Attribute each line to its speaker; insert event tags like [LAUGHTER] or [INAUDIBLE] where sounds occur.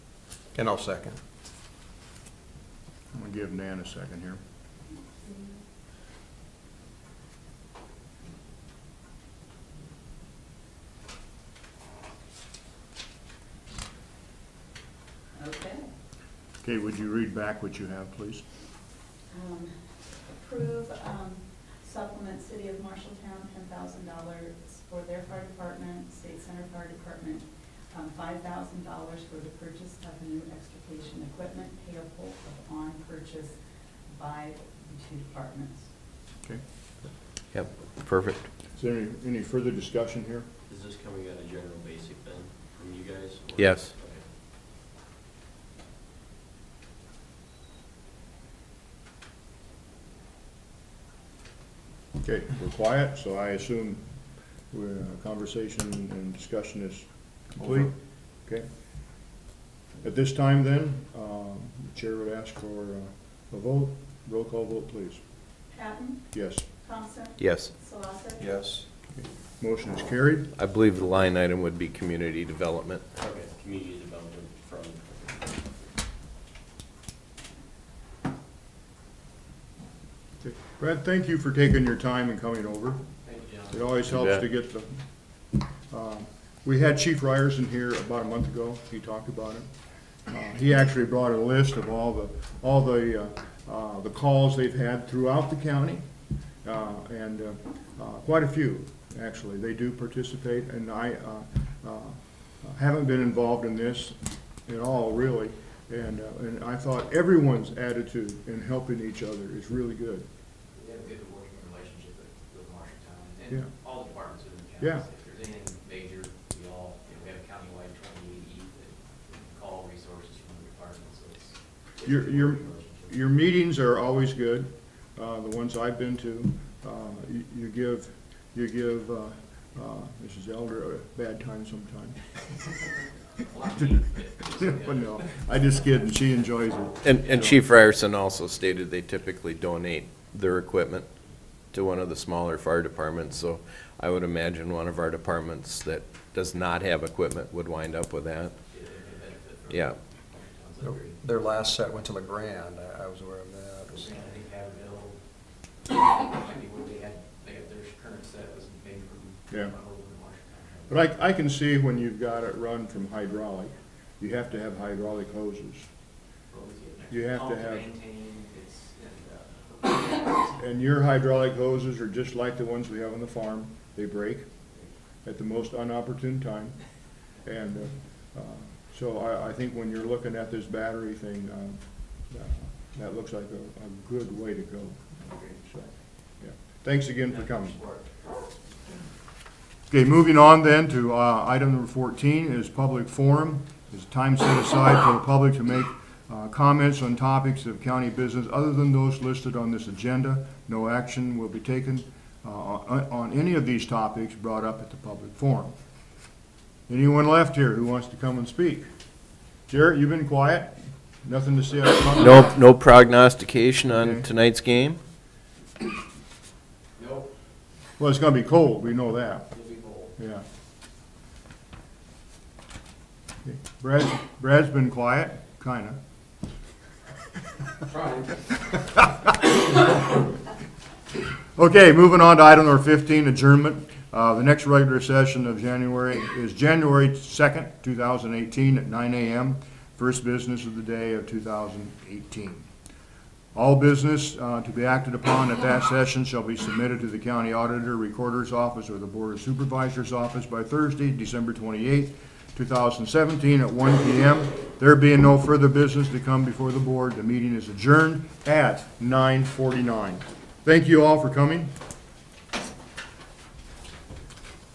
Speaker 1: And I'll second.
Speaker 2: I'm gonna give Dan a second here.
Speaker 3: Okay.
Speaker 2: Okay, would you read back what you have, please?
Speaker 3: Um, Approve um, supplement City of Marshalltown, ten thousand dollars for their fire department, State Center Fire Department, um, five thousand dollars for the purchase of new extrication equipment payable upon purchase by the two departments.
Speaker 2: Okay.
Speaker 4: Yep, perfect.
Speaker 2: Is there any, any further discussion here?
Speaker 5: Is this coming out of general basic then, from you guys? or-
Speaker 4: Yes.
Speaker 5: Okay.
Speaker 2: Okay, we're quiet, so I assume we're, uh, conversation and discussion is complete?
Speaker 1: Over.
Speaker 2: Okay. At this time then, um, the chair would ask for uh, a vote, roll call vote, please.
Speaker 3: Patton,
Speaker 2: Yes,
Speaker 3: Thompson,
Speaker 4: Yes,
Speaker 3: Solosek.
Speaker 1: Yes.
Speaker 2: motion is carried.
Speaker 4: I believe the line item would be community development.
Speaker 5: Okay, community development from,
Speaker 2: Okay. Brad, thank you for taking your time and coming over.
Speaker 5: thank you, John.
Speaker 2: It always
Speaker 4: You
Speaker 2: helps
Speaker 4: bet.
Speaker 2: to get the, um, we had Chief Ryerson here about a month ago, he talked about it. Uh, He actually brought a list of all the, all the, uh, uh, the calls they've had throughout the county, uh, and uh, uh, quite a few, actually, they do participate, and I uh, uh, haven't been involved in this at all, really, and, uh, and I thought everyone's attitude in helping each other is really good.
Speaker 6: They have a good working relationship with, with Marshalltown
Speaker 2: Yeah.
Speaker 6: and all departments in the
Speaker 2: Yeah.
Speaker 6: county. If there's anything major, we all, you know, we have a countywide twenty-eight E that we can call resources from the department, so it's. it's a
Speaker 2: Your,
Speaker 6: good
Speaker 2: your,
Speaker 6: working relationship.
Speaker 2: your meetings are always good, uh, the ones I've been to. Uh, you- You give, you give uh, uh, Mrs. Elder a bad time sometimes. [LAUGHS]
Speaker 6: Well, I mean, it's- it's-
Speaker 2: But no, I just kidding, she enjoys it.
Speaker 4: And, and Chief Ryerson also stated they typically donate their equipment to one of the smaller fire departments, so I would imagine one of our departments that does not have equipment would wind up with
Speaker 6: yeah,
Speaker 4: that.
Speaker 6: they may benefit from
Speaker 4: Yeah.
Speaker 6: Marshalltown's
Speaker 1: Their-
Speaker 6: upgrade.
Speaker 1: Their last set went to LeGrand, I, I was aware of that. It
Speaker 6: I
Speaker 1: was-
Speaker 6: think Haverhill, I mean, what they had, they had their current set was made from.
Speaker 2: Yeah.
Speaker 6: Marshalltown.
Speaker 2: But I, I can see when you've got it run from hydraulic, you have to have hydraulic hoses. You have to
Speaker 6: Pump
Speaker 2: have-
Speaker 6: Maintain, it's, and, uh,
Speaker 2: And your hydraulic hoses are just like the ones we have on the farm. They break at the most unopportune time. And uh, uh, so I, I think when you're looking at this battery thing, um, uh, that looks like a, a good way to go. So,
Speaker 6: uh,
Speaker 2: [LAUGHS] yeah. Thanks again for coming. Okay, moving on then to uh, item number 14 is public forum. Is time set aside for the public to make uh, comments on topics of county business other than those listed on this agenda. No action will be taken uh, on on any of these topics brought up at the public forum. Anyone left here who wants to come and speak? Jarrett, you've been quiet? Nothing to say? out of front?
Speaker 4: No, no prognostication
Speaker 2: Okay.
Speaker 4: on tonight's game?
Speaker 6: Nope,
Speaker 2: Well, it's going to be cold, we know that.
Speaker 6: you'll be bold.
Speaker 2: Yeah. Okay, Brad, Brad's been quiet, kinda.
Speaker 6: Trying.
Speaker 2: Okay, moving on to item number fifteen, adjournment. Uh, the next regular session of January is January second, two thousand eighteen, at nine AM. First business of the day of two thousand eighteen. All business uh, to be acted upon at that session shall be submitted to the county auditor, recorder's office, or the board of supervisors' office by Thursday, December twenty-eighth, two thousand seventeen, at one PM. There being no further business to come before the board, the meeting is adjourned at nine forty-nine. Thank you all for coming.